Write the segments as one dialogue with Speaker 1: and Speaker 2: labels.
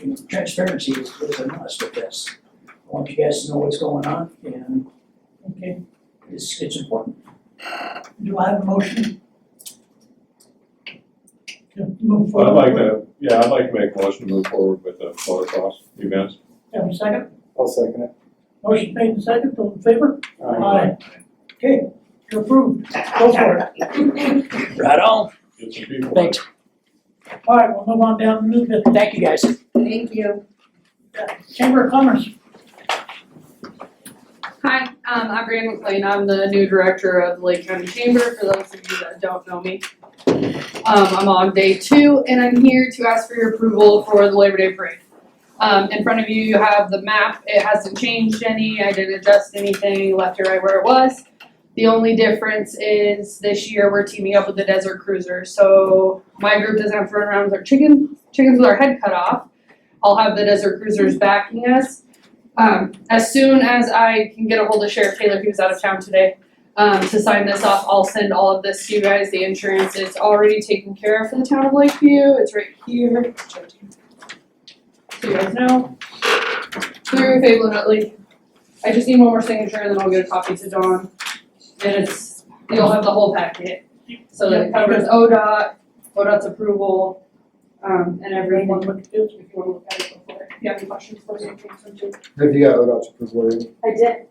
Speaker 1: you know, transparency is, is a must with this. I want you guys to know what's going on and
Speaker 2: Okay,
Speaker 1: it's, it's important.
Speaker 2: do I have a motion? To move
Speaker 3: I'd
Speaker 2: forward.
Speaker 3: like to, yeah, I'd like to make a motion to move forward with the motocross events.
Speaker 2: Have a second?
Speaker 4: I'll second it.
Speaker 2: Motion made and second, all in favor?
Speaker 4: Aye.
Speaker 2: Okay, you're approved, go for it.
Speaker 1: Right on,
Speaker 3: Get some people.
Speaker 1: thanks,
Speaker 2: All right, we'll move on down to new business.
Speaker 1: thank you guys.
Speaker 5: Thank you.
Speaker 2: Chamber of Commerce.
Speaker 6: Hi, um, I'm Brandon McLean, I'm the new director of the Lake County Chamber, for those of you that don't know me. Um, I'm on day two, and I'm here to ask for your approval for the Labor Day Parade. Um, in front of you, you have the map, it hasn't changed any, I didn't adjust anything, left or right where it was. The only difference is this year, we're teaming up with the Desert Cruiser, so my group doesn't have to run around with our chicken, chickens with our head cut off. I'll have the Desert Cruisers backing us, um, as soon as I can get a hold of Sheriff Taylor, he was out of town today, um, to sign this off, I'll send all of this to you guys, the insurance is already taken care of for the town of Lakeview, it's right here. So you guys know, through Fable Nutley, I just need one more signature and then I'll get a copy to Dawn, and it's, you'll have the whole packet. So that covers ODOT, ODOT's approval, um, and everything,
Speaker 2: Anyone
Speaker 6: if
Speaker 2: with kids?
Speaker 6: you wanna look at it before, if you have any questions, let me know, please, I'm too.
Speaker 4: Have you got ODOT's approval already?
Speaker 6: I did.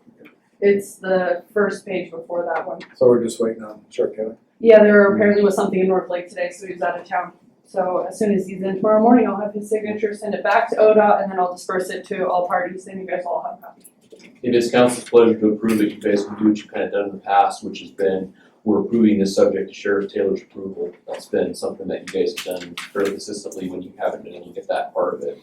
Speaker 6: It's the first page before that one.
Speaker 4: So we're just waiting on Sheriff Taylor.
Speaker 6: Yeah, there apparently was something in North Lake today, so he was out of town. So as soon as he's in tomorrow morning, I'll have his signature, send it back to ODOT, and then I'll disperse it to all parties, and you guys all have copies.
Speaker 7: It is council's pleasure to approve that you basically do what you've kind of done in the past, which has been, we're approving this subject to Sheriff Taylor's approval. That's been something that you guys have done fairly consistently when you haven't been able to get that part of it.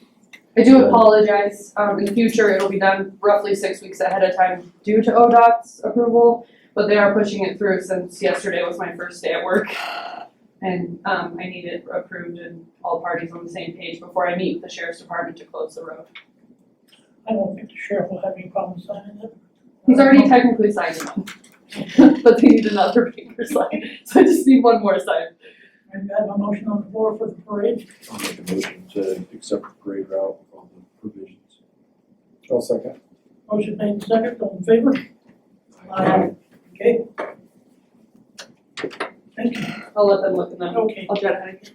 Speaker 6: I do
Speaker 7: Yeah.
Speaker 6: apologize, um, in the future, it'll be done roughly six weeks ahead of time due to ODOT's approval, but they are pushing it through since yesterday was my first day at work. And, um, I need it approved and all parties on the same page before I meet with the sheriff's department to close the road.
Speaker 2: I don't think the sheriff will have any problem signing it. Uh,
Speaker 6: He's already technically signed one, but they need another paper sign, so I just need one more sign.
Speaker 2: I have a motion on the floor for the parade.
Speaker 8: I'll make a motion to accept the parade route with all the provisions.
Speaker 4: I'll second.
Speaker 2: Motion made and second, all in favor? Okay. Thank you.
Speaker 6: I'll let them look and then
Speaker 2: Okay,
Speaker 6: I'll jot it.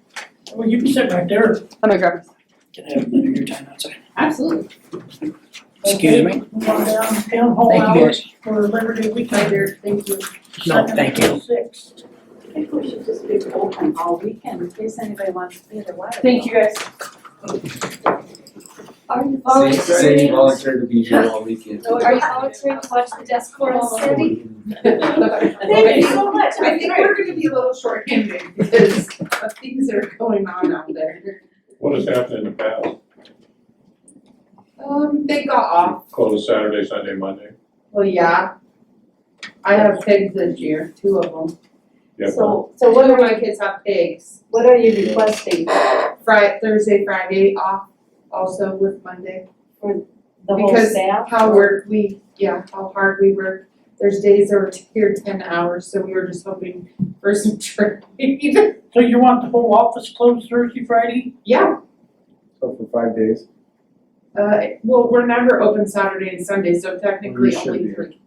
Speaker 2: well, you can sit right there.
Speaker 6: I'm gonna grab this.
Speaker 1: Can I have another your time outside?
Speaker 6: Absolutely.
Speaker 1: Excuse me?
Speaker 2: Move on down, town hall
Speaker 1: Thank you guys.
Speaker 2: hours for Labor Day
Speaker 6: My
Speaker 2: weekend.
Speaker 6: dear, thank you.
Speaker 1: No, thank you.
Speaker 2: Second to six.
Speaker 5: I think we should just be open all weekend in case anybody wants to be at the wedding.
Speaker 6: Thank you guys.
Speaker 9: Are you
Speaker 8: Say, say you
Speaker 9: volunteering, are
Speaker 8: volunteered to be here all weekend.
Speaker 6: No,
Speaker 9: you volunteering to watch the desk for us, Cindy?
Speaker 6: Thank you.
Speaker 5: so much.
Speaker 9: I think we're gonna be a little shorthanded because of things that are going on out there.
Speaker 3: What has happened in the past?
Speaker 9: Um, they got off,
Speaker 3: Closed Saturday, Sunday, Monday.
Speaker 9: well, yeah. I have pigs this year, two of them.
Speaker 3: You have one?
Speaker 9: So, so one of my kids have pigs,
Speaker 5: What are you requesting?
Speaker 9: Fri- Thursday, Friday off also with Monday.
Speaker 5: The whole
Speaker 9: Because
Speaker 5: staff?
Speaker 9: How work we, yeah, how hard we work. There's days that we're here ten hours, so we were just hoping for some trade.
Speaker 2: So you want the whole office closed Thursday, Friday?
Speaker 9: Yeah,
Speaker 4: So for five days.
Speaker 9: uh, well, we're never open Saturday and Sunday, so
Speaker 4: We
Speaker 9: technically
Speaker 4: should
Speaker 9: only
Speaker 4: be.
Speaker 9: three.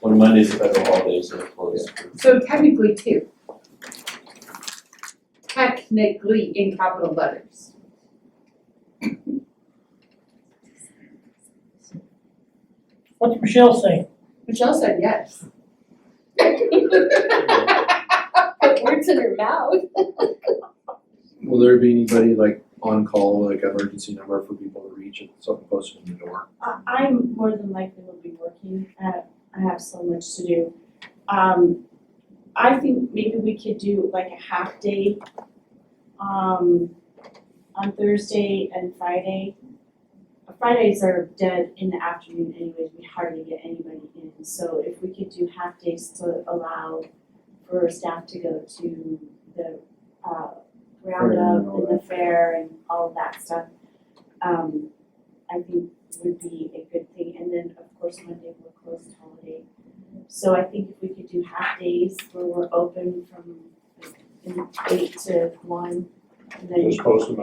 Speaker 7: When Monday's a federal holiday, so it's closed.
Speaker 9: So technically two. Technically in capital letters.
Speaker 2: What's Michelle saying?
Speaker 9: Michelle said yes.
Speaker 5: Put words in her mouth.
Speaker 8: Will there be anybody like on call, like emergency number for people to reach if something posted in the door?
Speaker 5: I, I'm more than likely will be working, uh, I have so much to do. Um, I think maybe we could do like a half day, um, on Thursday and Friday. Fridays are dead in the afternoon anyways, we hardly get anybody in, so if we could do half days to allow for staff to go to the, uh, roundup and the fair and all of that stuff. Um, I think would be a good thing, and then of course Monday we're closed holiday. So I think if we could do half days where we're open from like, eight to one, and then
Speaker 3: Just posted